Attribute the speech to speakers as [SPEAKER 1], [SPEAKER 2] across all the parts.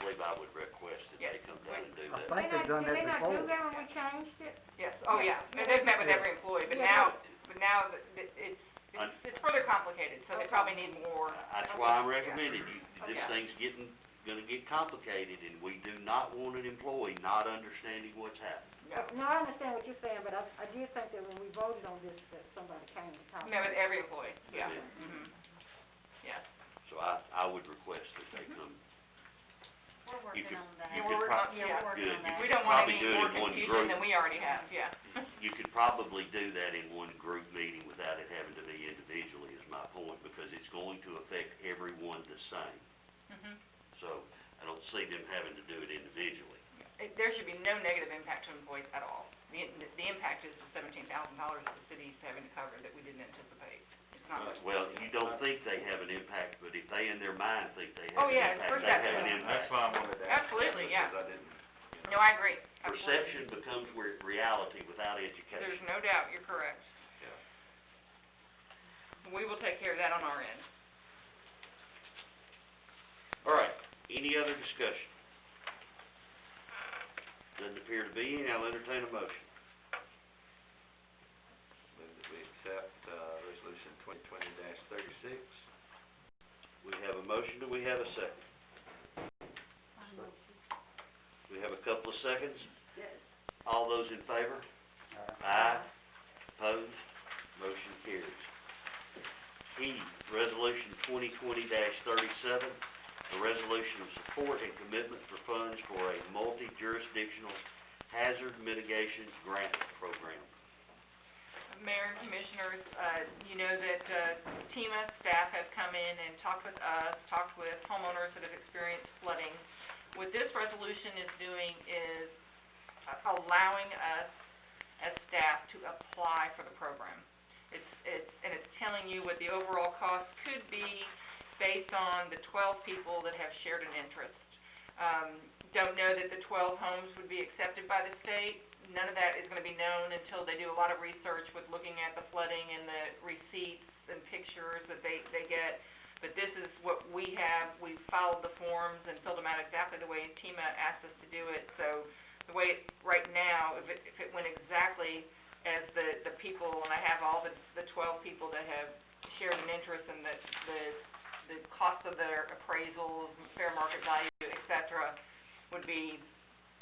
[SPEAKER 1] believe I would request that they come down and do
[SPEAKER 2] I
[SPEAKER 1] that.
[SPEAKER 2] think they've done that before.
[SPEAKER 3] Did they not do that when we changed it?
[SPEAKER 4] Yes, oh, yeah, and they've met with every employee, but
[SPEAKER 3] Yeah.
[SPEAKER 4] now, but now that- that it's, it's, it's further complicated, so they probably need more.
[SPEAKER 1] That's why I'm recommending, you, this
[SPEAKER 4] Okay.
[SPEAKER 1] thing's getting, gonna get complicated, and we do not want an employee not understanding what's happening.
[SPEAKER 4] Yeah.
[SPEAKER 3] Uh, No, I understand what you're saying, but I, I do think that when we voted on this, that somebody came to talk.
[SPEAKER 4] Met with every employee, yeah.
[SPEAKER 1] Yeah.
[SPEAKER 4] Mhm. Yes.
[SPEAKER 1] So I, I would request that they come.
[SPEAKER 5] We're
[SPEAKER 1] You could-
[SPEAKER 5] working on that.
[SPEAKER 1] You
[SPEAKER 4] we're
[SPEAKER 1] could
[SPEAKER 4] working on-
[SPEAKER 1] prob-
[SPEAKER 4] yeah,
[SPEAKER 5] we're working
[SPEAKER 1] good.
[SPEAKER 5] on
[SPEAKER 1] You
[SPEAKER 5] that.
[SPEAKER 4] We
[SPEAKER 1] could
[SPEAKER 4] don't want
[SPEAKER 1] probably
[SPEAKER 4] any
[SPEAKER 1] do it
[SPEAKER 4] more
[SPEAKER 1] in one
[SPEAKER 4] confusion
[SPEAKER 1] group.
[SPEAKER 4] than we already have, yeah.
[SPEAKER 1] You could probably do that in one group meeting without it having to be individually, is my point, because it's going to affect everyone the same. Mm-hmm.
[SPEAKER 4] Mhm.
[SPEAKER 1] So, I don't see them having to do it individually.
[SPEAKER 4] It- There should be no negative impact to employees at all. The, the impact is the seventeen thousand dollars that the city's having to cover that we didn't anticipate. It's not much.
[SPEAKER 1] Uh, Well, you don't think they have an impact, but if they in their mind think they
[SPEAKER 4] Oh,
[SPEAKER 1] have an
[SPEAKER 4] yeah, it's
[SPEAKER 1] impact, they
[SPEAKER 4] perception.
[SPEAKER 1] have an impact.
[SPEAKER 6] That's why I wanted to ask.
[SPEAKER 4] Absolutely, yeah.
[SPEAKER 6] Because I didn't,
[SPEAKER 4] No, I agree. Absolutely.
[SPEAKER 1] Perception becomes re- reality without
[SPEAKER 4] There's
[SPEAKER 1] education.
[SPEAKER 4] no doubt, you're correct. We will take care of that on our end.
[SPEAKER 1] All right, any other discussion? Doesn't appear to be any, I'll entertain a motion.
[SPEAKER 6] move that we accept, uh, resolution twenty twenty thirty-six.
[SPEAKER 1] We have a motion, do we have a second? We have a couple of seconds?
[SPEAKER 3] Yes.
[SPEAKER 1] All those in favor? Aye. Opposed? Motion carries. E, Resolution twenty twenty thirty-seven, a resolution of support and commitment for funds for a multi-jurisdictional hazard mitigation grant program.
[SPEAKER 4] Mayor and Commissioners, uh, you know that, uh, TMA staff have come in and talked with us, talked with homeowners that have experienced flooding. What this resolution is doing is uh, allowing us as staff to apply for the program. It's, it's, and it's telling you what the overall cost could be based on the twelve people that have shared an interest. Um, don't know that the twelve homes would be accepted by the state. None of that is gonna be known until they do a lot of research with looking at the flooding and the receipts and pictures that they, they get. But this is what we have. We followed the forms and filled them out exactly the way TMA asked us to do it. So the way it, right now, if it, if it went exactly as the, the people, and I have all the, the twelve people that have shared an interest in the, the, the cost of their appraisals, fair market value, et cetera, would be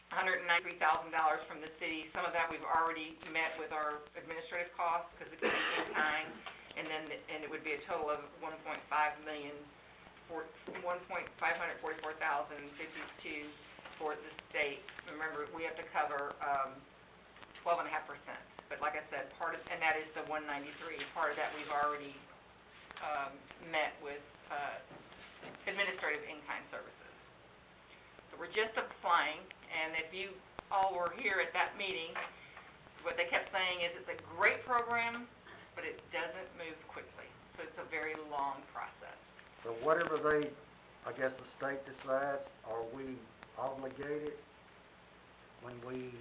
[SPEAKER 4] hundred and ninety-three thousand dollars from the city. Some of that we've already met with our administrative costs, because it could be in kind. And then, the- and it would be a total of one point five million, four, one point five hundred forty-four thousand fifty-two for the state. Remember, we have to cover, um, twelve and a half percent. But like I said, part of, and that is the one ninety-three, part of that we've already, um, met with, uh, administrative in-kind services. So we're just applying, and if you all were here at that meeting, what they kept saying is it's a great program, but it doesn't move quickly. So it's a very long process.
[SPEAKER 2] So whatever they, I guess the state decides, are we obligated when we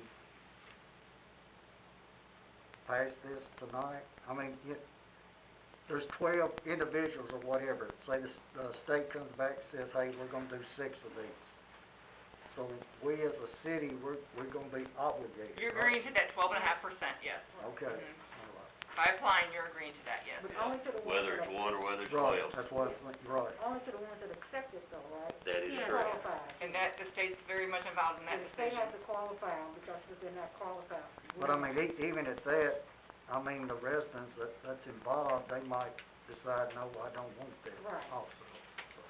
[SPEAKER 2] pass this tonight? I mean, it, there's twelve individuals or whatever, say the, s- the state comes back and says, hey, we're gonna do six of these. So we as a city, we're, we're gonna be obligated,
[SPEAKER 4] You're
[SPEAKER 2] right?
[SPEAKER 4] agreeing to that twelve and a half percent, yes.
[SPEAKER 2] Okay, all
[SPEAKER 4] Mhm.
[SPEAKER 2] right.
[SPEAKER 4] By applying, you're agreeing to that, yes.
[SPEAKER 3] But only to the ones
[SPEAKER 1] Whether
[SPEAKER 3] that,
[SPEAKER 1] it's one or whether it's
[SPEAKER 2] Right,
[SPEAKER 1] twelve,
[SPEAKER 2] that's what I was thinking, right.
[SPEAKER 3] only to the ones that accept it though, right?
[SPEAKER 1] that is
[SPEAKER 3] They
[SPEAKER 1] correct.
[SPEAKER 3] Qualify.
[SPEAKER 4] And that, the state's very much involved in that
[SPEAKER 3] And the state
[SPEAKER 4] decision.
[SPEAKER 3] has to qualify them because if they're not qualified. we
[SPEAKER 2] But I
[SPEAKER 3] don't-
[SPEAKER 2] mean, e- even at that, I mean, the residents that, that's involved, they might decide, no, I don't want that
[SPEAKER 3] Right.
[SPEAKER 2] also.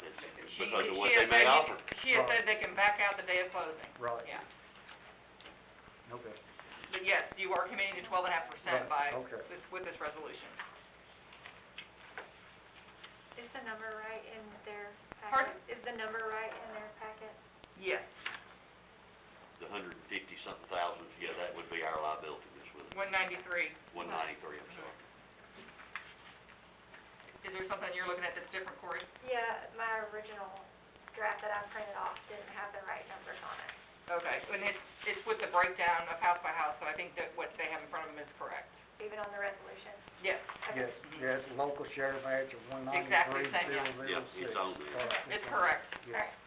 [SPEAKER 1] It's
[SPEAKER 4] She-
[SPEAKER 1] because of
[SPEAKER 4] she
[SPEAKER 1] what
[SPEAKER 4] has
[SPEAKER 1] they may
[SPEAKER 4] said you-
[SPEAKER 1] offer.
[SPEAKER 4] She has
[SPEAKER 2] Right.
[SPEAKER 4] said they can back out the day of closing,
[SPEAKER 2] Right,
[SPEAKER 4] yeah.
[SPEAKER 2] okay.
[SPEAKER 4] But yes, you are committing to twelve and a half percent by,
[SPEAKER 2] Right, okay.
[SPEAKER 4] this- with this resolution.
[SPEAKER 5] Is the number right in their
[SPEAKER 4] Pardon?
[SPEAKER 5] packet? Is the number right in their packet?
[SPEAKER 4] Yes,
[SPEAKER 1] The hundred and fifty something thousand, yeah, that would be our liability, Miss Withers.
[SPEAKER 4] one ninety-three.
[SPEAKER 1] One ninety-three, I'm sorry.
[SPEAKER 4] Is there something you're looking at that's different, Cory?
[SPEAKER 5] Yeah, my original draft that I printed off didn't have the right numbers on it.
[SPEAKER 4] Okay, and it's, it's with the breakdown of house by house, so I think that what they have in front of them is correct.
[SPEAKER 5] Even on the resolution,
[SPEAKER 4] Yes,
[SPEAKER 2] Yes, yes, local sheriff action one
[SPEAKER 4] Exactly
[SPEAKER 2] ninety-three,
[SPEAKER 4] the same, yeah.
[SPEAKER 2] zero zero six.
[SPEAKER 1] Yeah, it's on there.
[SPEAKER 2] Right,
[SPEAKER 4] it's correct.
[SPEAKER 2] yeah.
[SPEAKER 5] alright,